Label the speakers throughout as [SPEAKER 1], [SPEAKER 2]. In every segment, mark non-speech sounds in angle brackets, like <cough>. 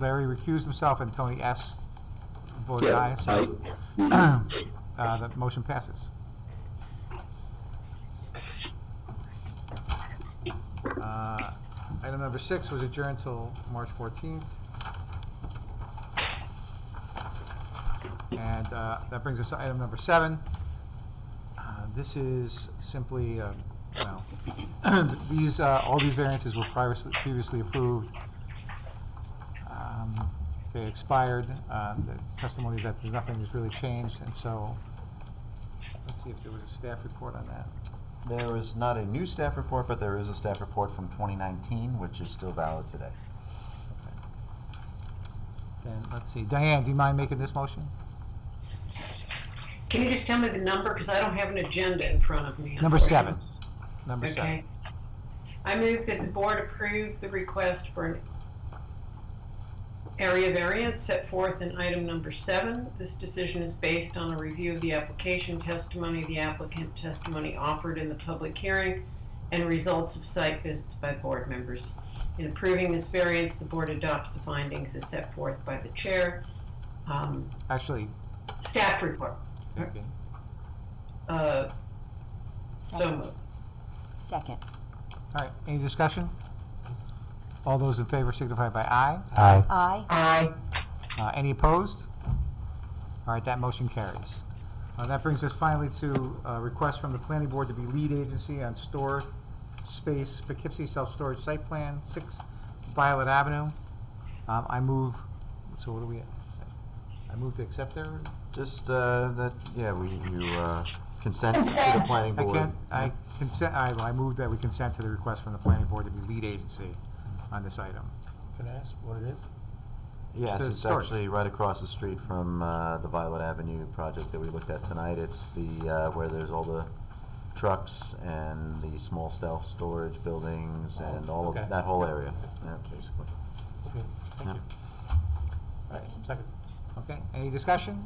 [SPEAKER 1] Larry recused himself and Tony S. voted aye.
[SPEAKER 2] Yeah, I,
[SPEAKER 1] so, <clears throat> uh, The motion passes. Uh, Item number six was adjourned till March 14th. And uh, that brings us to item number seven. Uh, This is simply, uh, well, <clears throat> these, uh, all these variances were previously- previously approved. Um, They expired, uh, the testimony is that there's nothing that's really changed, and so, let's see if there was a staff report on that.
[SPEAKER 3] There is not a new staff report, but there is a staff report from 2019, which is still valid today.
[SPEAKER 1] Okay. Then, let's see, Diane, do you mind making this motion?
[SPEAKER 4] Can you just tell me the number? Because I don't have an agenda in front of me.
[SPEAKER 1] Number seven.
[SPEAKER 4] unfortunately.
[SPEAKER 1] Number seven.
[SPEAKER 4] Okay. I move that the board approve the request for an area variance set forth in item number seven. This decision is based on a review of the application testimony, the applicant testimony offered in the public hearing, and results of site visits by board members. In approving this variance, the board adopts the findings as set forth by the chair. Um,
[SPEAKER 1] Actually,
[SPEAKER 4] Staff report.
[SPEAKER 1] okay.
[SPEAKER 4] Uh, So moved.
[SPEAKER 5] Second.
[SPEAKER 1] all right, any discussion? All those in favor signify by aye.
[SPEAKER 3] Aye.
[SPEAKER 5] Aye.
[SPEAKER 4] Aye.
[SPEAKER 1] Uh, Any opposed? All right, that motion carries. Uh, That brings us finally to a request from the planning board to be lead agency on store space Poughkeepsie Self-Storage Site Plan, 6 Violet Avenue. Um, I move, so what do we, I move to accept their,
[SPEAKER 3] Just uh, that, yeah, we, you uh, consent to the planning
[SPEAKER 1] I
[SPEAKER 3] board.
[SPEAKER 1] can't, I consent, I I move that we consent to the request from the planning board to be lead agency on this item.
[SPEAKER 6] Can I ask what it is?
[SPEAKER 3] Yes,
[SPEAKER 1] to
[SPEAKER 3] it's
[SPEAKER 1] start.
[SPEAKER 3] actually right across the street from uh, the Violet Avenue project that we looked at tonight. It's the, uh, where there's all the trucks and the small self storage buildings and all
[SPEAKER 6] okay.
[SPEAKER 3] of, that whole area, yeah, basically.
[SPEAKER 6] Okay, Thank
[SPEAKER 3] Yeah.
[SPEAKER 6] you. All right, second.
[SPEAKER 1] Okay, any discussion?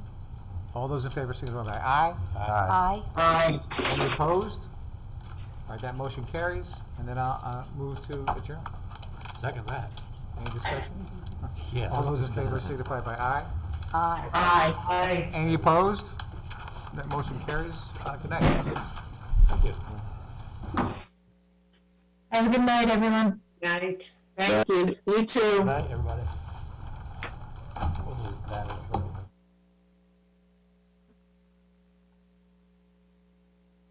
[SPEAKER 1] All those in favor signify by aye.
[SPEAKER 5] Aye.
[SPEAKER 4] Aye.
[SPEAKER 1] Any opposed? All right, that motion carries, and then I'll uh, move to adjourn.
[SPEAKER 6] Second that.
[SPEAKER 1] Any discussion?
[SPEAKER 6] Yeah.
[SPEAKER 1] All those in favor signify by aye.
[SPEAKER 5] Aye.
[SPEAKER 4] Aye.
[SPEAKER 1] Any opposed? That motion carries. Uh, Good night.
[SPEAKER 6] Thank you.
[SPEAKER 7] Have a good night, everyone.
[SPEAKER 4] Night.
[SPEAKER 7] Thank you. You too.
[SPEAKER 6] Good night, everybody.